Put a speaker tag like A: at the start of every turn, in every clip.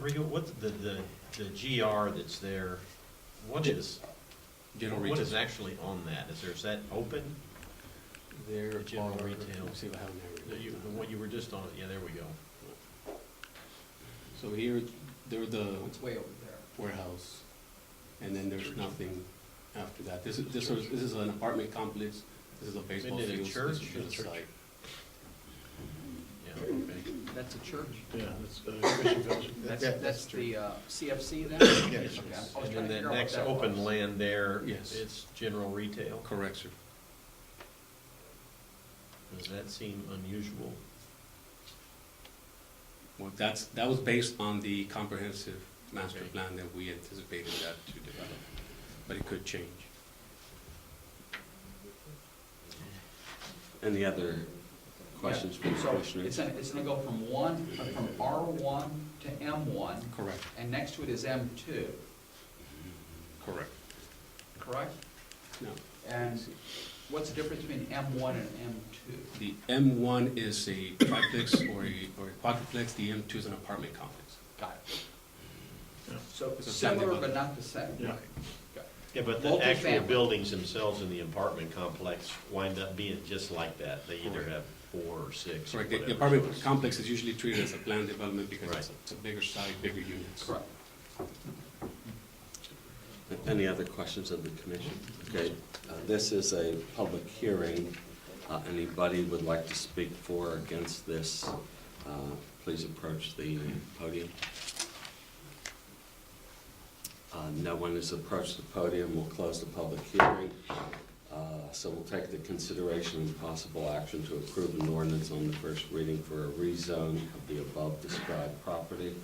A: Rico, what's the, the, the GR that's there, what is,
B: General
A: what is
B: retail.
A: actually on that? Is there, is that open?
B: There
A: The general
B: are-
A: retail.
B: let's see what happened there.
A: The, you- the one you were just on, yeah, there we go.
B: So here, there are the
C: It's way over there.
B: warehouse, and then there's nothing after that. This is, this is, this is an apartment complex, this is a baseball
A: did a
B: field. so this
A: church?
B: is a
D: Church.
B: site.
A: Yeah, okay.
C: That's a church?
D: Yeah, that's, uh, Christian Fellowship.
C: That's,
D: Yeah,
C: that's
D: true.
C: the uh, CFC then?
D: Yeah.
C: Okay, I was trying
A: And
C: to
A: then that
C: figure out what
A: next
C: that
A: open
C: was.
A: land there,
B: Yes.
A: it's general retail?
B: Correct, sir.
A: Does that seem unusual?
B: Well, that's, that was based on the comprehensive master
A: Okay.
B: plan that we anticipated that to develop, but it could change.
E: Any other questions from the
C: So it's
E: commissioners?
C: gonna, it's gonna go from one, uh, from R one to M one,
B: Correct,
C: and next to it is M two,
B: correct.
C: correct?
B: No,
C: And what's the difference between M one and M two?
B: the M one is a triplex or a, or a quadruplex, the M two is an apartment complex.
C: Got it.
D: Yeah.
C: So
B: It's a
C: similar
B: family
C: but not the same.
D: Yeah.
A: Yeah, but the actual
C: Multifamily.
A: buildings themselves in the apartment complex wind up being just like that. They either
B: Correct.
A: have four or six or
B: Correct, the-
A: whatever.
B: the apartment
A: so it's-
B: complex is usually treated as a planned development because it's a-
A: Right.
B: it's a bigger site, bigger units.
C: Correct.
E: Any other questions of the commission? Okay, uh, this is a public hearing. Uh, Anybody would like to speak for or against this, uh, please approach the podium. Uh, No one has approached the podium, we'll close the public hearing. Uh, So we'll take the consideration and possible action to approve an ordinance on the first reading for a rezone of the above described property.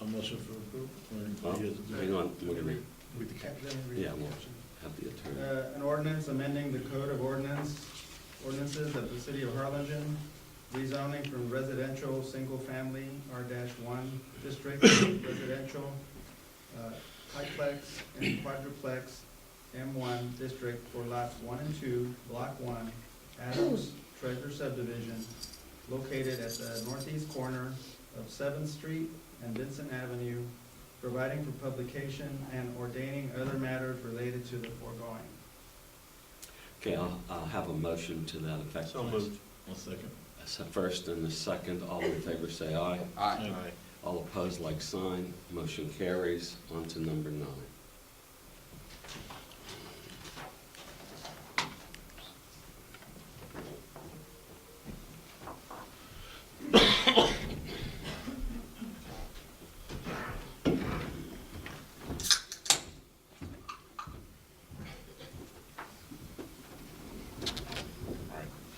D: A motion for approval?
E: Well,
D: Or you guys do it?
E: Hang on, we're gonna
D: With the cap.
E: Yeah, well, have the attorney.
F: Uh, An ordinance amending the code of ordinance, ordinances of the city of Harlingen, rezoning from residential, single-family, R one district, residential, uh, triplex and quadruplex, M one district for lots one and two, block one, Adams Treasure subdivision, located at the northeast corner of Seventh Street and Vincent Avenue, providing for publication and ordaining other matters related to the foregoing.
E: Okay, I'll, I'll have a motion to that effect.
A: So
E: please.
A: moved.
D: One second.
E: That's the first and the second, all in favor say aye.
C: All right,
D: Aye.
E: All opposed, like sign. Motion carries. On to number nine.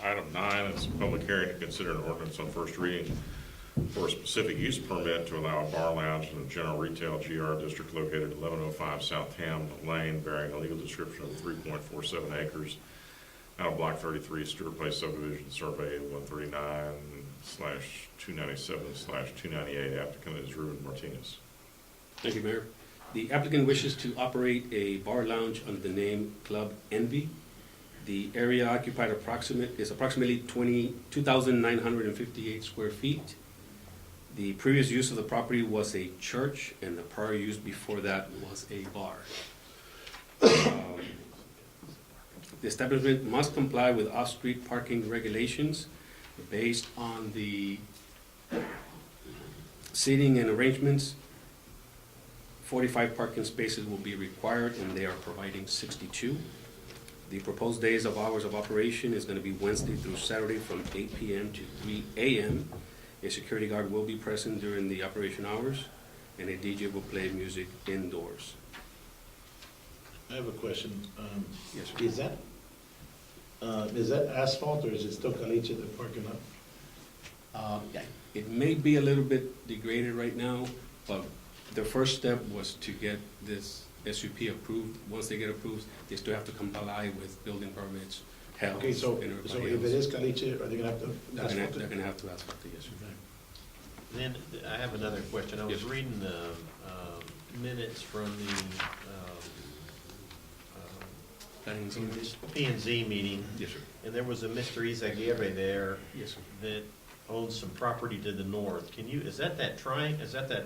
G: Item nine is a public hearing to consider an ordinance on first reading for a specific use permit to allow a bar lounge in a general retail GR district located at 1105 South Ham Lane, bearing a legal description of 3.47 acres out of Block 33, Stewart Place subdivision, survey 139 slash 297 slash 298. Applicant is Ruben Martinez.
B: Thank you, Mayor. The applicant wishes to operate a bar lounge under the name Club Envy. The area occupied approximate, is approximately 20 2,958 square feet. The previous use of the property was a church, and the prior use before that was a bar. Um, The establishment must comply with off-street parking regulations based on the seating and arrangements 45 parking spaces will be required, and they are providing 62. The proposed days of hours of operation is going to be Wednesday through Saturday from 8 PM to 3 AM. A security guard will be present during the operation hours, and a DJ will play music indoors.
D: I have a question. Um,
B: Yes,
D: Is that, uh, is that asphalt or is it still caliche in the parking lot?
B: Um, It may be a little bit degraded right now, but the first step was to get this SUP approved. Once they get approved, they still have to comply with building permits, health,
D: Okay,
B: and
D: so,
B: everybody else.
D: so if it is caliche, are they gonna have to
B: They're gonna,
D: asphalt
B: they're
D: it?
B: gonna have to ask about the issue.
A: Then th- I have another question. I was
B: Yes.
A: reading the um, minutes from um, the
B: Planning and zoning?
A: um, P and Z meeting,
B: Yes, sir.
A: and there was a Mr. Izaguirre there
B: Yes, sir.
A: that owns some property to the north. Can you, is that that tri, is that that